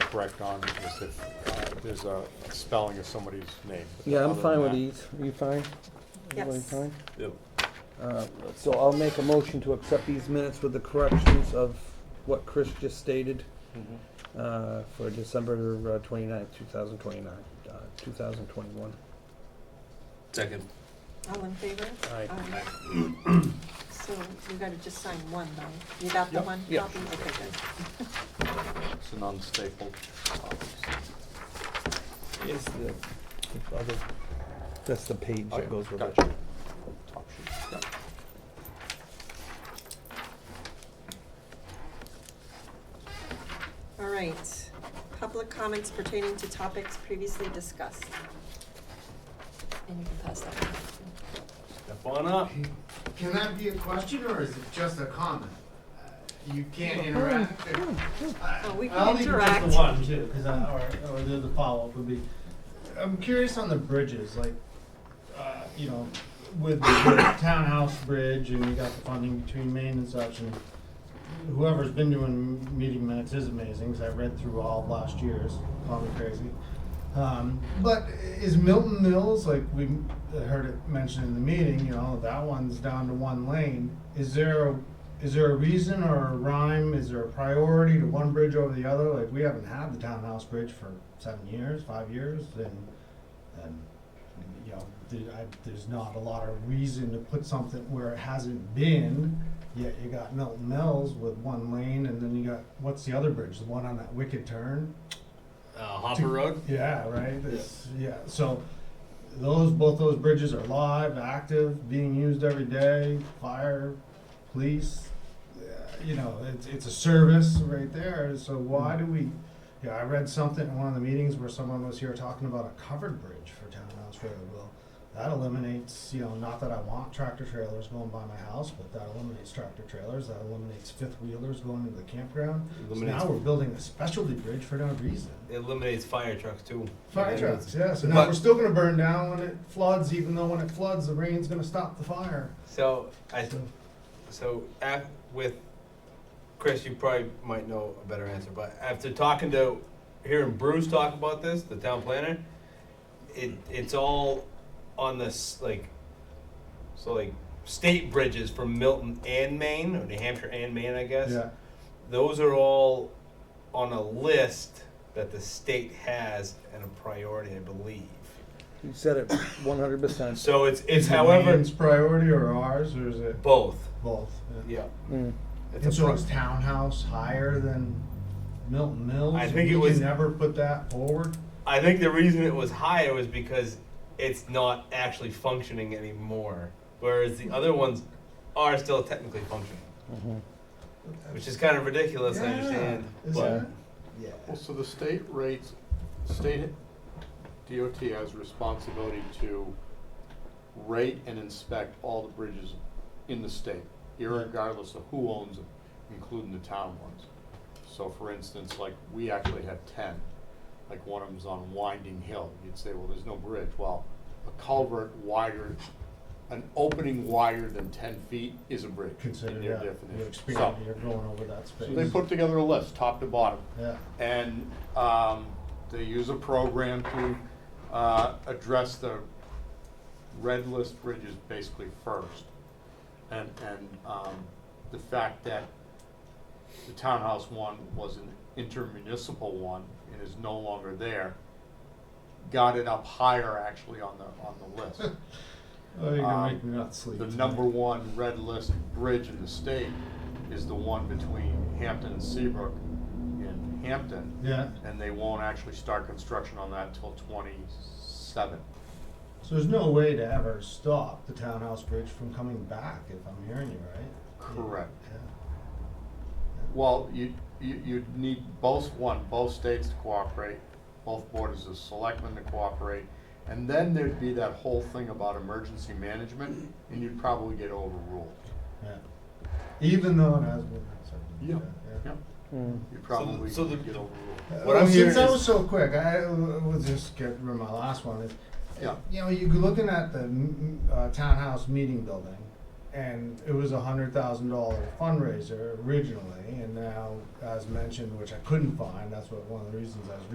correct on is if uh, there's a spelling of somebody's name. but Yeah, I'm other fine with than these. Are you fine? Everybody Yes. fine? Yep. Uh, So I'll make a motion to accept these minutes with the corrections of what Chris just stated mm-hmm. uh, for December uh, twenty-ninth, two thousand twenty-nine, uh, two thousand twenty-one. Second. All in favor? Aye. Aye. So you gotta just sign one though. You got the Yep. one Yep. copy? Okay, good. that, It's uh, an unstapled. copy. Is the the other, that's the page Okay, that goes with it. gotcha. Top sheet, yeah. All right. Public comments pertaining to topics previously discussed. And you can pass that one. Step on up. Can that be a question or is it just a comment? Uh, You can't interact. Oh, we I'll can leave it just interact. the one too, because I, or, or the, the follow-up would be, I'm curious on the bridges, like, uh, you know, with the townhouse bridge and you got the funding between Maine and such, and whoever's been doing meeting minutes is amazing, because I read through all of last year's, call me crazy. Um, but is Milton Mills, like we heard it mentioned in the meeting, you know, that one's down to one lane. Is there a, is there a reason or a rhyme? Is there a priority to one bridge over the other? Like, we haven't had the townhouse bridge for seven years, five years, and, and, you know, the- I, there's not a lot of reason to put something where it hasn't been. Yet you got Milton Mills with one lane, and then you got, what's the other bridge? The one on that wicked turn? Uh, Hopper Road. Yeah, right. This, yeah. So those both those bridges are live, active, being used every day. Fire, police. Uh, you know, it's it's a service right there. So why do we? Yeah, I read something in one of the meetings where someone was here talking about a covered bridge for townhouse road. Well, that eliminates, you know, not that I want tractor trailers going by my house, but that eliminates tractor trailers. That eliminates fifth wheelers going into the campground. Eliminates- so now we're building a specialty bridge for no reason. It eliminates fire trucks too. Fire And it's- trucks, yeah. So now But- we're still gonna burn down when it floods, even though when it floods, the rain's gonna stop the fire. So I, so af, with Chris, you probably might know a better answer, but after talking to, hearing Bruce talk about this, the town planner, it it's all on this like, so like state bridges from Milton and Maine or New Hampshire and Maine, I guess. Yeah, those are all on a list that the state has and a priority, I believe. You said it one hundred percent. So it's it's Is it however Maine's priority or ours, or is it both. both? Yeah. Mm, It's And a so pro- is townhouse higher than Milton Mills? I think We it was- can Never put that forward? I think the reason it was higher was because it's not actually functioning anymore, whereas the other ones are still technically functioning, mm-hmm, which is kind of ridiculous. I Yeah, understand, is but that- yeah, Well, so the state rates, state DOT has responsibility to rate and inspect all the bridges in the state, irregardless of who owns them, including the town ones. So for instance, like, we actually have ten, like one of them's on Winding Hill, you'd say, well, there's no bridge, well, a culvert wider, an opening wider than ten feet is a bridge, in Considered, their yeah, definition. you're So- expanding, you're going over that space. So they put together a list, top to bottom, Yeah, and um, they use a program to uh, address the red list bridges basically first. And, and um, the fact that the townhouse one was an intermunicipal one and is no longer there, got it up higher actually on the, on the list. oh, you're Um, gonna make me not sleep. The tonight. number one red list bridge in the state is the one between Hampton and Seabrook in Hampton Yeah, and they won't actually start construction on that till twenty-seven. so there's no way to ever stop the townhouse bridge from coming back, if I'm hearing you right? Correct. Yeah. Well, you, you, you'd need both, one, both states to cooperate, both boards of selectmen to cooperate, and then there'd be that whole thing about emergency management, and you'd probably get overruled. Yeah. Even though it has been. accepted. Yeah. yeah. Yep, mm-hmm. you'd probably get so the- overruled. Uh, What I'm since hearing I is- was so quick, I uh, was just get rid of my last one. Is Yeah. you know you're looking at the mm, uh, townhouse mm, meeting building, and it was a hundred thousand dollar fundraiser originally, and now, as mentioned, which I couldn't find, that's what, one of the reasons I was